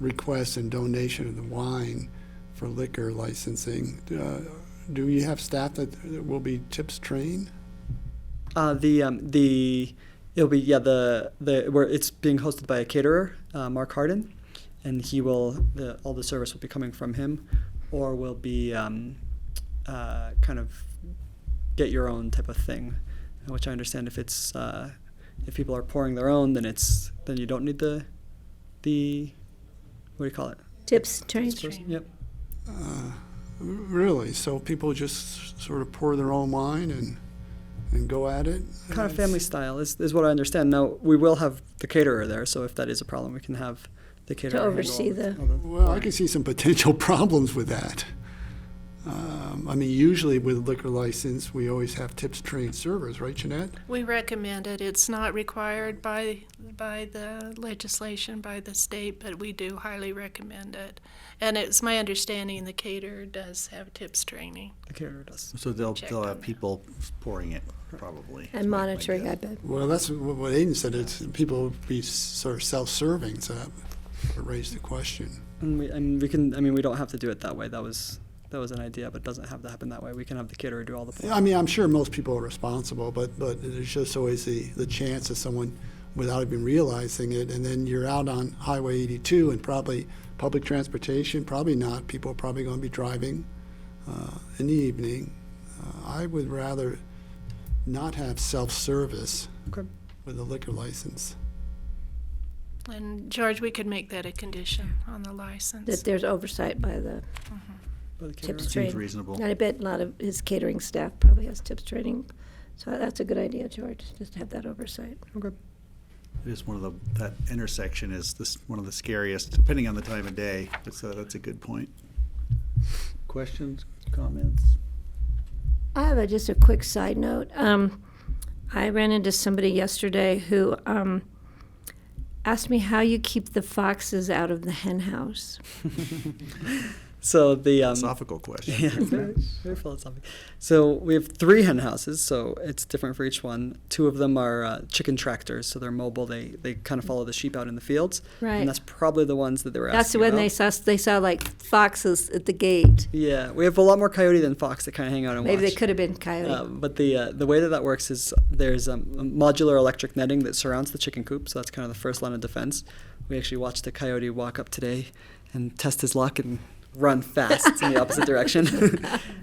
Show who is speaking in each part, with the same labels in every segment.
Speaker 1: request and donation of the wine for liquor licensing. Uh, Do you have staff that that will be tips trained?
Speaker 2: Uh, the um, the it'll be yeah the the where it's being hosted by a caterer, uh, Mark Harden, and he will the all the service will be coming from him, or will be um, uh, kind of get your own type of thing, which I understand if it's uh, if people are pouring their own, then it's then you don't need the the what do you call it?
Speaker 3: Tips, trains.
Speaker 2: Person? Yep.
Speaker 1: Really? So people just sort of pour their own wine and, and go at it?
Speaker 2: kind of family style is, is what I understand. Now we will have the caterer there, so if that is a problem, we can have the caterer handle
Speaker 3: oversee
Speaker 2: all the-
Speaker 3: the-
Speaker 2: all the-
Speaker 1: Well, I can see some potential problems with that. Um, I mean, usually with liquor license, we always have tips trained servers, right, Jeanette?
Speaker 4: We recommend it. It's not required by, by the legislation, by the state, but we do highly recommend it. And it's my understanding the caterer does have tips training.
Speaker 2: the caterer does.
Speaker 5: So they'll,
Speaker 4: Check
Speaker 5: they'll
Speaker 4: on
Speaker 5: have
Speaker 4: that.
Speaker 5: people pouring it, probably.
Speaker 3: And monitoring, I bet.
Speaker 1: Well, that's what what Aiden said, it's, people be sort of self-serving, so that raised the question.
Speaker 2: And we and we can I mean we don't have to do it that way. That was that was an idea, but it doesn't have to happen that way. We can have the caterer do all the
Speaker 1: I mean, I'm sure most people are responsible, but, but there's just always the, the chance of someone without even realizing it, and then you're out on Highway 82 and probably public transportation, probably not. People are probably going to be driving uh, in the evening. Uh, I would rather not have self-service
Speaker 2: Okay.
Speaker 1: with a liquor license.
Speaker 4: And George, we could make that a condition on the license.
Speaker 3: That there's oversight by the
Speaker 2: by the caterer.
Speaker 3: tips
Speaker 5: Seems
Speaker 3: training.
Speaker 5: reasonable.
Speaker 3: And I bet a lot of his catering staff probably has tips training. So that's a good idea, George, just to have that oversight.
Speaker 2: Okay.
Speaker 5: It is one of the, that intersection is this, one of the scariest, depending on the time of day. So that's a good point. Questions, comments?
Speaker 3: I have a, just a quick side note. Um, I ran into somebody yesterday who um, asked me how you keep the foxes out of the hen house.
Speaker 2: So the um,
Speaker 5: Philosophical question.
Speaker 2: Yeah, very, very philosophic. So we have three hen houses, so it's different for each one. Two of them are uh, chicken tractors, so they're mobile. They they kind of follow the sheep out in the fields.
Speaker 3: Mm. Right.
Speaker 2: And that's probably the ones that they were.
Speaker 3: That's
Speaker 2: asking
Speaker 3: when
Speaker 2: about.
Speaker 3: they saw they saw like foxes at the gate.
Speaker 2: Yeah, we have a lot more coyote than fox that kind of hang out and
Speaker 3: Maybe
Speaker 2: watch.
Speaker 3: they could have been coyote.
Speaker 2: Uh, but the uh, the way that that works is there's um, modular electric netting that surrounds the chicken coop, so that's kind of the first line of defense. We actually watched a coyote walk up today and test his luck and run fast in the opposite direction.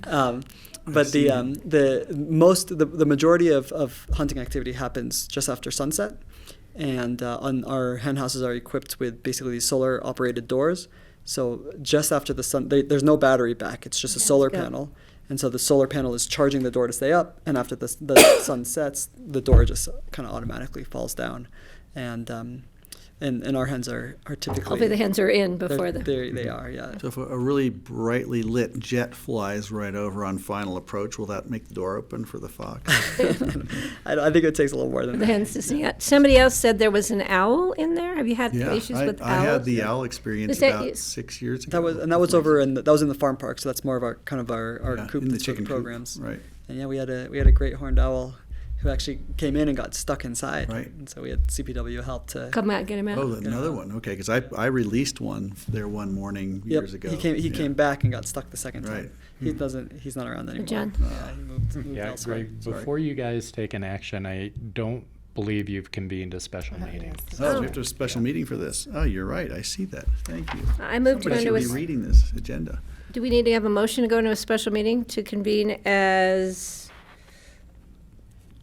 Speaker 2: um, but the um, the most the, the majority of, of hunting activity happens just after sunset, and uh, on our hen houses are equipped with basically these solar operated doors. So just after the sun, they, there's no battery back. It's just a solar
Speaker 3: good.
Speaker 2: panel. And so the solar panel is charging the door to stay up, and after the, s- the sun sets, the door just kind of automatically falls down, and um, and and our hens are are typically
Speaker 3: Hopefully the hens are in
Speaker 2: they're-
Speaker 3: before the.
Speaker 2: they're- they are yeah
Speaker 5: So if a- a really brightly lit jet flies right over on final approach, will that make the door open for the fox?
Speaker 2: I, I think it takes a little more than
Speaker 3: The
Speaker 2: that.
Speaker 3: hens to see it. Somebody else said there was an owl in there. Have you had
Speaker 5: Yeah,
Speaker 3: issues
Speaker 5: I,
Speaker 3: with
Speaker 5: I
Speaker 3: owls?
Speaker 5: had the owl experience
Speaker 3: Is that you-
Speaker 5: about six years ago.
Speaker 2: That was and that was over in the, that was in the farm park, so that's more of our kind of our, our
Speaker 5: Yeah,
Speaker 2: coop
Speaker 5: in the
Speaker 2: that's for
Speaker 5: chicken coop,
Speaker 2: programs.
Speaker 5: right.
Speaker 2: And yeah, we had a we had a great horned owl who actually came in and got stuck inside.
Speaker 5: Right.
Speaker 2: And so we had CPW help to
Speaker 3: Come out, get him out.
Speaker 5: Oh, another one. Okay, because I, I released one there one morning
Speaker 2: Yep,
Speaker 5: years ago.
Speaker 2: He came he
Speaker 5: Yeah.
Speaker 2: came back and got stuck the second time.
Speaker 5: Right. Hmm.
Speaker 2: He doesn't he's not around anymore.
Speaker 3: John.
Speaker 5: Uh,
Speaker 2: Yeah,
Speaker 5: oh,
Speaker 2: he moved, moved
Speaker 6: Yeah,
Speaker 2: elsewhere.
Speaker 6: Greg,
Speaker 2: Sorry.
Speaker 6: before you guys take an action, I don't believe you've convened a special meeting.
Speaker 5: Oh, we have to have a special meeting for this. Oh, you're right. I see that. Thank you.
Speaker 3: I moved to go
Speaker 5: Somebody should
Speaker 3: into a.
Speaker 5: be
Speaker 3: s-
Speaker 5: reading this agenda.
Speaker 3: Do we need to have a motion to go into a special meeting to convene as?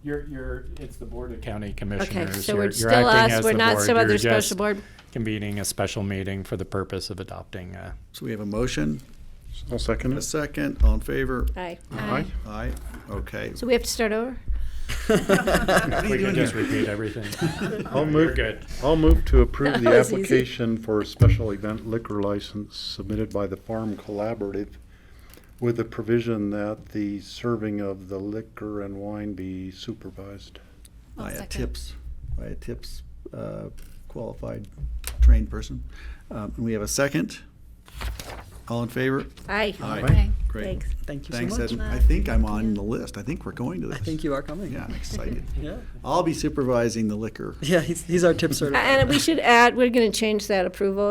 Speaker 6: You're, you're, it's the Board of County
Speaker 3: Okay,
Speaker 6: Commissioners.
Speaker 3: so we're
Speaker 6: You're- you're
Speaker 3: still
Speaker 6: acting
Speaker 3: us.
Speaker 6: as
Speaker 3: We're
Speaker 6: the
Speaker 3: not
Speaker 6: board.
Speaker 3: some other
Speaker 6: You're
Speaker 3: special
Speaker 6: just
Speaker 3: board.
Speaker 6: Convening a special meeting for the purpose of adopting uh, a
Speaker 5: So we have a motion,
Speaker 7: I'll second
Speaker 5: a
Speaker 7: it.
Speaker 5: second, all in favor?
Speaker 3: Aye.
Speaker 7: Aye.
Speaker 5: Aye. Okay.
Speaker 3: So we have to start over?
Speaker 5: What are you
Speaker 6: We can
Speaker 5: doing
Speaker 6: just
Speaker 5: here?
Speaker 6: repeat everything.
Speaker 7: I'll
Speaker 6: We're
Speaker 7: move,
Speaker 6: good.
Speaker 7: I'll move to approve the
Speaker 3: That was easy.
Speaker 7: application for a special event liquor license submitted by the Farm Collaborative with the provision that the serving of the liquor and wine be supervised.
Speaker 5: By a
Speaker 4: second.
Speaker 5: tips, by a tips uh, qualified, trained person. Um, And we have a second. All in favor?
Speaker 3: Aye.
Speaker 5: Aye. Great.
Speaker 3: Thanks.
Speaker 2: Thank you
Speaker 5: Thanks,
Speaker 2: so much.
Speaker 5: Ed. I think I'm on the list. I think we're going to
Speaker 2: I
Speaker 5: this.
Speaker 2: think you are coming.
Speaker 5: Yeah, I'm excited.
Speaker 2: Yeah.
Speaker 5: I'll be supervising the liquor
Speaker 2: Yeah, he's, he's our tip sort of.
Speaker 3: And we should add, we're gonna change that approval